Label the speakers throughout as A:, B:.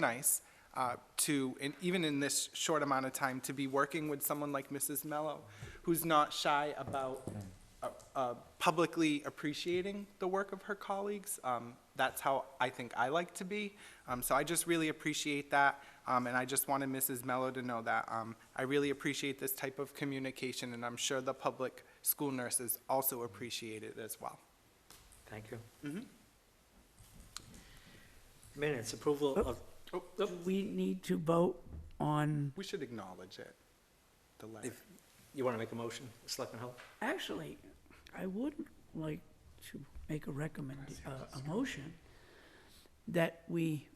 A: nice uh, to, and even in this short amount of time, to be working with someone like Mrs. Mello, who's not shy about uh, uh, publicly appreciating the work of her colleagues. Um, That's how I think I like to be. Um, So I just really appreciate that, um, and I just wanted Mrs. Mello to know that. um, I really appreciate this type of communication, and I'm sure the public school nurses also appreciate it as well.
B: Thank you. Minutes, approval of,
A: Oh,
B: Yep.
C: Do we need to vote on,
A: We should acknowledge it, the letter.
B: if you want to make a motion, Selectman Hull?
C: actually, I would like to make a recommend, uh, a motion that we,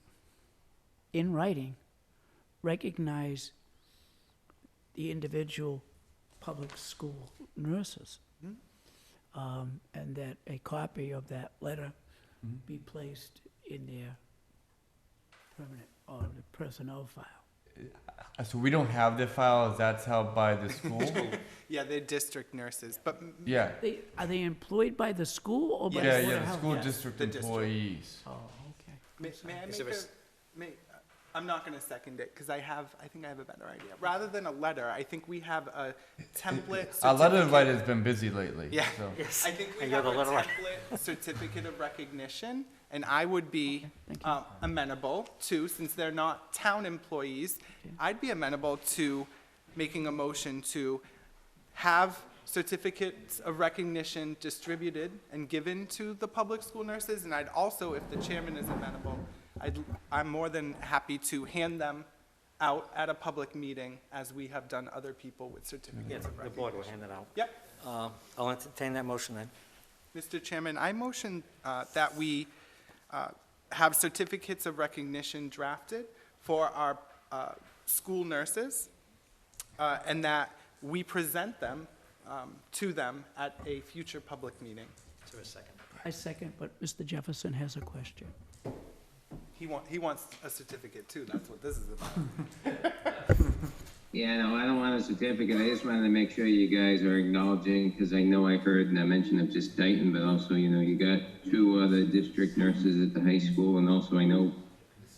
C: in writing, recognize the individual public school nurses.
D: Hmm?
C: Um, and that a copy of that letter
D: Hmm?
C: be placed in their permanent or the personnel file.
D: Uh, So we don't have the files. That's held by the school.
A: Yeah, they're district nurses, but m-
D: yeah.
C: They, are they employed by the school or by the
D: Yeah,
C: Board
D: yeah,
C: of
D: the
C: Health?
D: school
C: Yeah.
D: district
A: The district.
D: employees.
C: Oh, okay.
A: May, may I
B: Is
A: make
B: there
A: a,
B: a s-
A: may, uh, I'm not gonna second it, cause I have, I think I have a better idea. Rather than a letter, I think we have a template.
D: Our letter
A: Oh, certificate-
D: writer's been busy lately.
A: Yeah.
D: So.
B: Yes.
A: I think we
B: And you're
A: have a
B: the letter writer.
A: template certificate of recognition, and I would be
C: thank
A: uh, amenable to, since they're not town employees, I'd be amenable to making a motion to have certificates of recognition distributed and given to the public school nurses, and I'd also, if the chairman is amenable, I'd, I'm more than happy to hand them out at a public meeting, as we have done other people with
B: Yes,
A: certificates of
B: the
A: recognition.
B: board will hand it out.
A: Yep.
B: Uh, I'll entertain that motion then.
A: Mr. Chairman, I motion uh, that we uh, have certificates of recognition drafted for our uh, school nurses, uh, and that we present them um, to them at a future public meeting.
B: Is there a second?
C: I second, but Mr. Jefferson has a question.
A: He wants, he wants a certificate too, that's what this is about.
E: Yeah, no, I don't want a certificate. I just wanted to make sure you guys are acknowledging, because I know I heard and I mentioned of just Dayton, but also, you know, you got two other district nurses at the high school, and also I know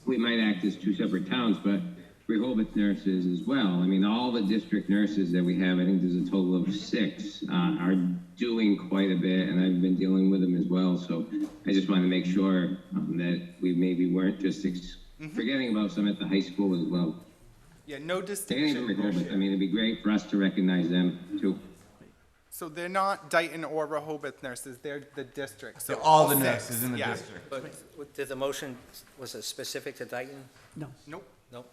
E: we might act as two separate towns, but Rehoboth nurses as well. I mean, all the district nurses that we have, I think there's a total of six, uh, are doing quite a bit, and I've been dealing with them as well. So I just wanted to make sure um, that we maybe weren't just ex- forgetting about some at the high school as well.
A: Yeah, no
E: Danny
A: distinction.
E: Rehoboth, I mean, it'd be great for us to recognize them too.
A: So they're not Dayton or Rehoboth nurses, they're the district, so.
D: They're all the
A: six,
D: nurses in the
A: yeah.
D: district.
B: But what- did the motion, was it specific to Dayton?
C: No,
A: Nope,
B: Nope.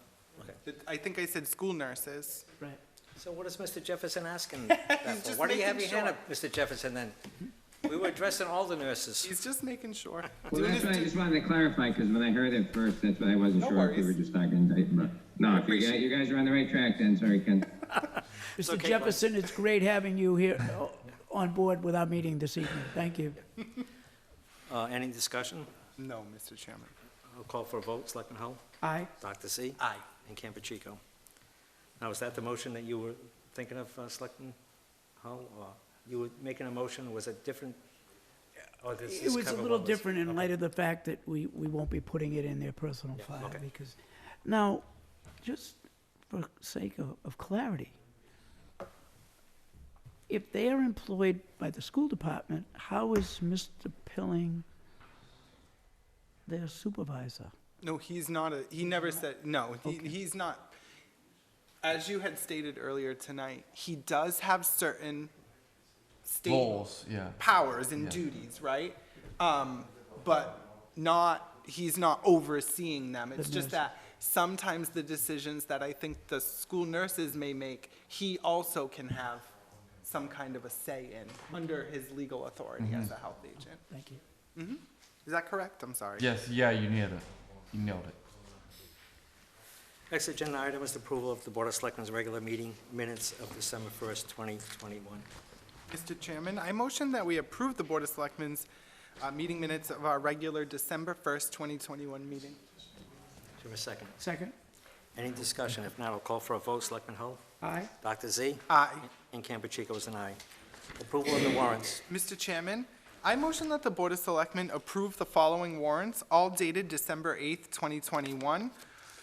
B: Okay.
A: I think I said school nurses.
C: right.
B: So what is Mr. Jefferson asking that for?
A: just
B: Why do you have your
A: making
B: hand up, Mr. Jefferson, then? We were addressing all the nurses.
A: He's just making sure.
E: Well,
A: Doing
E: that's
A: his
E: what I
A: du-
E: just wanted to clarify, because when I heard it first, that's why I wasn't
A: No
E: sure if we were
A: worries.
E: just talking Dayton, but, no, if you guys, you guys are on the right track then, sorry, Ken.
C: Mr.
B: okay,
C: Jefferson, it's great having you here uh, on board with our meeting this evening. Thank you.
B: Uh, Any discussion?
A: No, Mr. Chairman.
B: I'll call for a vote, Selectman Hull?
C: Aye.
B: Dr. Z? Aye. And Campuchico. Now, is that the motion that you were thinking of, uh, Selectman Hull? Or you were making a motion, was it different? Or does
C: It
B: this
C: was a
B: cover
C: little
B: what was-
C: different in
B: okay.
C: light of the fact that we, we won't be putting it in their personal
B: Yeah,
C: file
B: okay.
C: because, now, just for sake of, of clarity, if they are employed by the school department, how is Mr. Pilling their supervisor?
A: No, he's not a, he never said, no, he, he's not. As you had stated earlier tonight, he does have certain state
D: Roles, yeah.
A: powers and duties, right? Um, but not, he's not overseeing them. It's
C: The
A: just
C: nurses.
A: that sometimes the decisions that I think the school nurses may make, he also can have some kind of a say in under his legal authority as a health agent.
C: Thank you.
A: Is that correct? I'm sorry.
D: Yes. Yeah. You nailed it. You nailed it.
B: Next agenda item is the approval of the Board of Selectmen's regular meeting minutes of December 1st, 2021.
A: Mr. Chairman, I motion that we approve the Board of Selectmen's uh, meeting minutes of our regular December 1st, 2021 meeting.
B: Do you have a second?
C: Second?
B: Any discussion? If not, I'll call for a vote, Selectman Hull?
C: Aye.
B: Dr. Z?
A: Aye.
B: And Campuchico is an aye. Approval of the warrants.
A: Mr. Chairman, I motion that the Board of Selectmen approve the following warrants, all dated December 8th, 2021,